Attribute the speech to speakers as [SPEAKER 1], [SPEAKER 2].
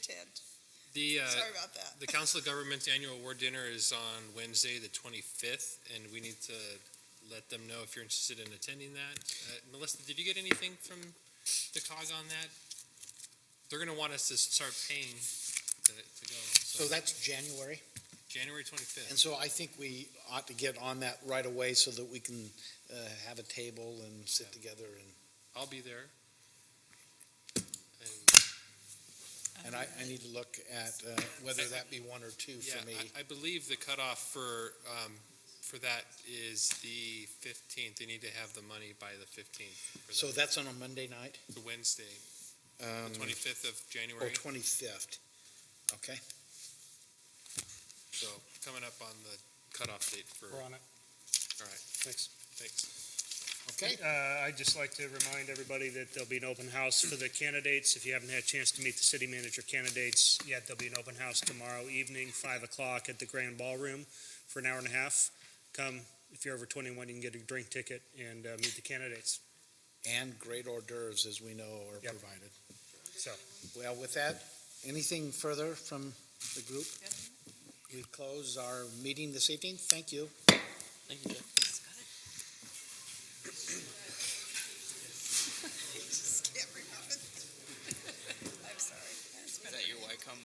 [SPEAKER 1] kid.
[SPEAKER 2] The, uh,
[SPEAKER 1] Sorry about that.
[SPEAKER 2] the Council of Governments Annual Award Dinner is on Wednesday, the 25th, and we need to let them know if you're interested in attending that. Uh, Melissa, did you get anything from the COG on that? They're going to want us to start paying to, to go.
[SPEAKER 3] So that's January,
[SPEAKER 2] January 25th.
[SPEAKER 3] and so I think we ought to get on that right away so that we can uh, have a table and sit together and,
[SPEAKER 2] I'll be there. And,
[SPEAKER 3] and I, I need to look at uh, whether that be one or two
[SPEAKER 2] yeah,
[SPEAKER 3] for me.
[SPEAKER 2] I, I believe the cutoff for, um, for that is the 15th. They need to have the money by the 15th for
[SPEAKER 3] So
[SPEAKER 2] the-
[SPEAKER 3] that's on a Monday night?
[SPEAKER 2] the Wednesday, the
[SPEAKER 3] um,
[SPEAKER 2] 25th of
[SPEAKER 3] Or
[SPEAKER 2] January.
[SPEAKER 3] twenty-fifth, okay?
[SPEAKER 2] So coming up on the cutoff date for,
[SPEAKER 4] We're on it.
[SPEAKER 2] all right,
[SPEAKER 4] Thanks.
[SPEAKER 2] thanks.
[SPEAKER 3] Okay,
[SPEAKER 4] Uh, I'd just like to remind everybody that there'll be an open house for the candidates. If you haven't had a chance to meet the city manager candidates yet, there'll be an open house tomorrow evening, five o'clock at the Grand Ballroom for an hour and a half. Come, if you're over twenty-one, you can get a drink ticket and, uh, meet the candidates.
[SPEAKER 3] and great hors d'oeuvres, as we know, are
[SPEAKER 4] Yep.
[SPEAKER 3] provided.
[SPEAKER 4] So,
[SPEAKER 3] Well, with that, anything further from the group? We close our meeting this evening, thank you.
[SPEAKER 5] Thank you, Jeff.